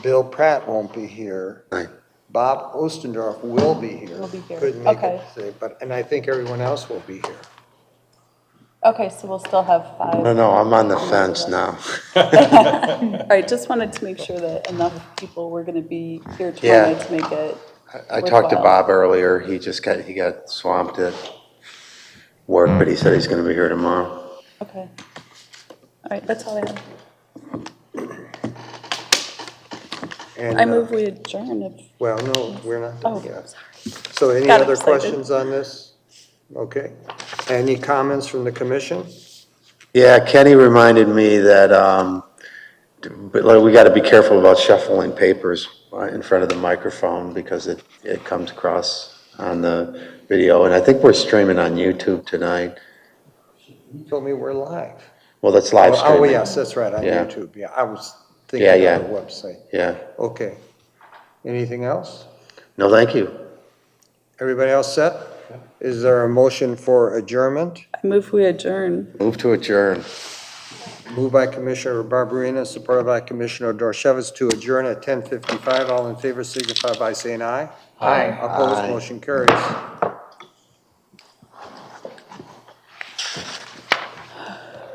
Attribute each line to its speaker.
Speaker 1: Bill Pratt won't be here.
Speaker 2: Right.
Speaker 1: Bob Ostendorf will be here.
Speaker 3: Will be here.
Speaker 1: Couldn't make
Speaker 3: Okay.
Speaker 1: it today, but, and I think everyone else will be here.
Speaker 3: Okay, so we'll still have
Speaker 2: No,
Speaker 3: five.
Speaker 2: no, I'm on the fence now.
Speaker 3: All right, just wanted to make sure that enough people were going to be here
Speaker 2: Yeah.
Speaker 3: tomorrow night to make it.
Speaker 2: I talked to
Speaker 3: Worthwhile.
Speaker 2: Bob earlier, he just got, he got swamped at work, but he said he's gonna be here tomorrow.
Speaker 3: Okay. All right, that's all I have.
Speaker 1: And,
Speaker 3: I
Speaker 1: uh,
Speaker 3: move we adjourn if,
Speaker 1: Well, no, we're not
Speaker 3: oh,
Speaker 1: done
Speaker 3: sorry.
Speaker 1: yet. So any
Speaker 3: Got
Speaker 1: other
Speaker 3: excited.
Speaker 1: questions on this? Okay. Any comments from the commission?
Speaker 2: Yeah, Kenny reminded me that, um, but like, we gotta be careful about shuffling papers uh, in front of the microphone because it, it comes across on the video, and I think we're streaming on YouTube tonight.
Speaker 1: You Told me we're live.
Speaker 2: Well, that's live
Speaker 1: Oh,
Speaker 2: streaming.
Speaker 1: Oh, yes, that's right, on
Speaker 2: Yeah.
Speaker 1: YouTube, yeah, I was
Speaker 2: Yeah,
Speaker 1: thinking
Speaker 2: yeah.
Speaker 1: on the website.
Speaker 2: Yeah,
Speaker 1: Okay. Anything else?
Speaker 2: no, thank you.
Speaker 1: Everybody else set? Is there a motion for adjournment?
Speaker 3: I move we adjourn.
Speaker 2: Move to adjourn.
Speaker 1: Moved by Commissioner Barberina, supported by Commissioner Dorchevitz to adjourn at ten fifty-five. All in favor signify by saying aye. Aye. Opposed,
Speaker 2: Aye.
Speaker 1: motion carries.